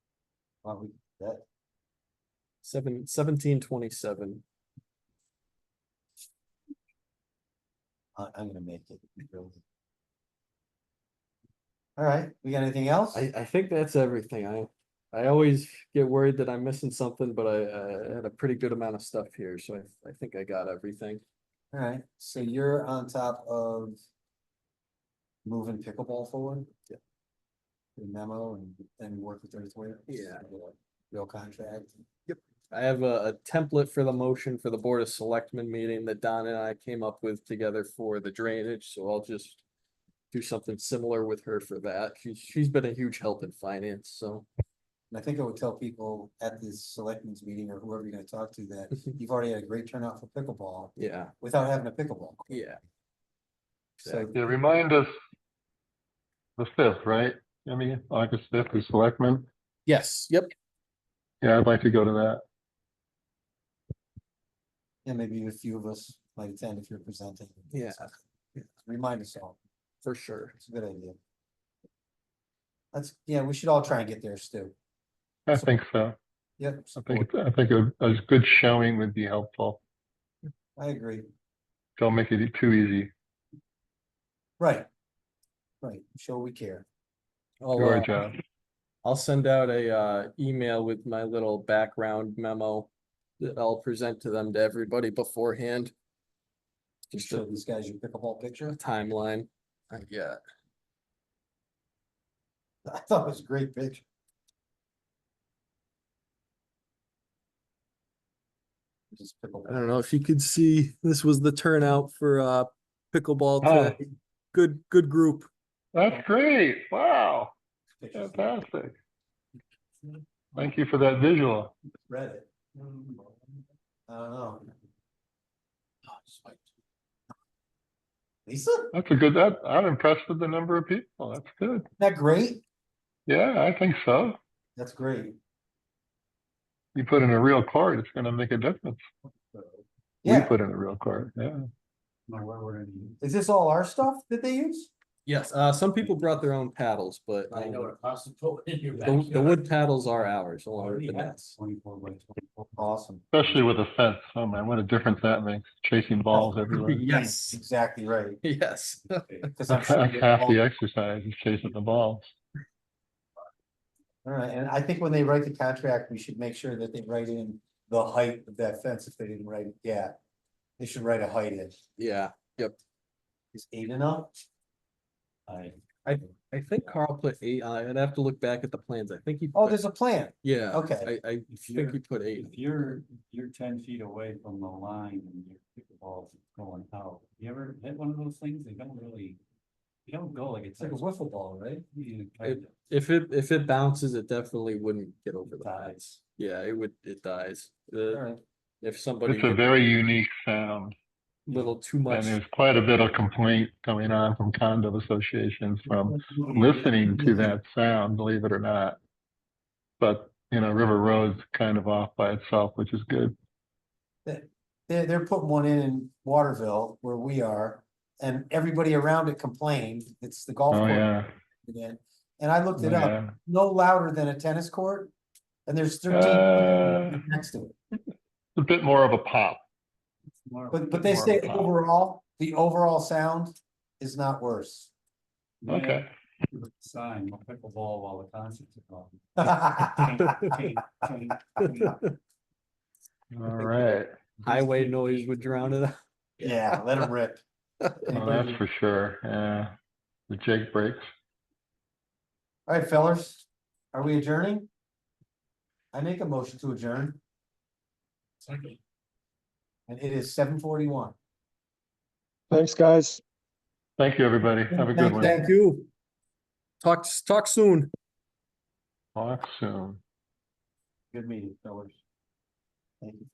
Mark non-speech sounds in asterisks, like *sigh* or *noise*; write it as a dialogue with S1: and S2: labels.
S1: Well, we, that,
S2: Seven, seventeen twenty-seven.
S1: I, I'm gonna make it. Alright, we got anything else?
S2: I, I think that's everything. I, I always get worried that I'm missing something, but I, I had a pretty good amount of stuff here, so I, I think I got everything.
S1: Alright, so you're on top of. Moving pickleball forward?
S2: Yeah.
S1: The memo and then work with thirty-three?
S2: Yeah.
S1: Real contract,
S2: I have a, a template for the motion for the Board of Selectmen meeting that Don and I came up with together for the drainage, so I'll just do something similar with her for that. She's, she's been a huge help in finance, so.
S1: and I think I would tell people at this selectmen's meeting or whoever you're gonna talk to that
S2: *laughs*
S1: you've already had a great turnout for pickleball
S2: Yeah,
S1: without having a pickleball.
S2: yeah.
S1: So
S3: Yeah, remind us the fifth, right? I mean, August fifth is selectmen.
S2: Yes, yep.
S3: Yeah, I'd like to go to that.
S1: Yeah, maybe a few of us might attend if you're presenting.
S2: Yeah.
S1: Remind us all,
S2: For sure.
S1: it's a good idea. That's, yeah, we should all try and get there, Stu.
S3: I think so.
S1: Yep,
S3: I
S1: support,
S3: think, I think a, a good showing would be helpful.
S1: I agree,
S3: Don't make it too easy.
S1: right. Right, show we care.
S2: I'll,
S3: Do our
S2: uh,
S3: job.
S2: I'll send out a uh email with my little background memo that I'll present to them to everybody beforehand.
S1: Just
S2: Just
S1: show
S2: a
S1: these guys your pickleball picture. *laughs*
S2: timeline. I get.
S1: I thought it was a great picture. Just
S2: I
S1: pickleball.
S2: don't know if you could see, this was the turnout for uh pickleball
S3: Oh.
S2: today. Good, good group.
S3: That's great. Wow, Uh,
S1: pictures.
S3: fantastic. Thank you for that visual.
S1: Read it. I don't know. Oh, Lisa,
S3: That's a good, that, I'm impressed with the number of people. That's good.
S1: that great?
S3: Yeah, I think so.
S1: That's great.
S3: You put in a real card, it's gonna make a difference. We
S1: Yeah,
S3: put in a real card, yeah.
S1: is this all our stuff that they use?
S2: Yes, uh some people brought their own paddles, but
S4: I know
S2: um,
S4: what possible in your
S2: the the
S4: backyard.
S2: wood paddles are ours along with
S4: Already
S2: the
S4: have.
S2: nets.
S1: Twenty-four by twenty-four. Awesome.
S3: Especially with a fence, oh man, what a difference that makes, chasing balls everywhere. *laughs*
S1: *laughs*
S2: Yes,
S1: Exactly right.
S2: *laughs* yes.
S1: *laughs* Cause I'm
S3: That's
S1: sure.
S3: *laughs* that's
S1: they
S3: half
S1: all-
S3: the exercise, is chasing the balls.
S1: All right, and I think when they write the contract, we should make sure that they write in the height of that fence if they didn't write it yet. They should write a height in.
S2: Yeah.
S1: Is eight enough? I.
S2: I think Carl put eight, on it. I'd have to look back at the plans, I think he.
S1: Oh,
S2: put-
S1: there's a plan.
S2: Yeah.
S1: okay.
S2: I, I
S4: If
S2: think
S4: you're-
S2: he put eight,
S4: If you're, you're ten feet away from the line and your pickleball's going out, you ever hit one of those things? They don't really, they don't go like it's.
S1: It's like a wiffle ball, right?
S4: You kind of-
S2: if it, if it bounces, it definitely wouldn't get over the highs,
S4: Dies.
S2: yeah, it would, it dies. The-
S1: All right.
S2: if somebody
S3: It's a
S2: did a
S3: very unique sound,
S2: little too
S3: and
S2: much,
S3: there's quite a bit of complaint coming on from condo associations from listening
S1: Mm-hmm.
S3: to that sound, believe it or not. But, you know, River Road's kind of off by itself, which is good.
S1: They're, they're putting one in in Waterville where we are, and everybody around it complained, it's the golf
S3: Oh,
S1: course.
S3: yeah. Oh,
S1: again. And I looked it up,
S3: yeah.
S1: no louder than a tennis court, and there's
S3: Uh.
S1: thirteen next to it.
S3: It's a bit more of a pop.
S1: But, but they
S3: More
S1: say
S3: loud.
S1: overall, the overall sound is not worse. *laughs*
S4: Yeah,
S3: Okay,
S4: Sign, pickleball while the concert's going.
S3: all right.
S2: highway noise would drown it out.
S1: Yeah, let them rip.
S3: Well, that's for sure, yeah. The Jake breaks.
S1: Alright, fellas, are we adjourning? I make a motion to adjourn, and it is seven forty-one.
S5: Thanks, guys.
S3: Thank you, everybody. Have a good
S1: Thanks,
S3: one.
S1: Dan.
S2: Thank you. Talk, talk soon.
S3: Talk soon.
S1: Good meeting, fellas. Thank you.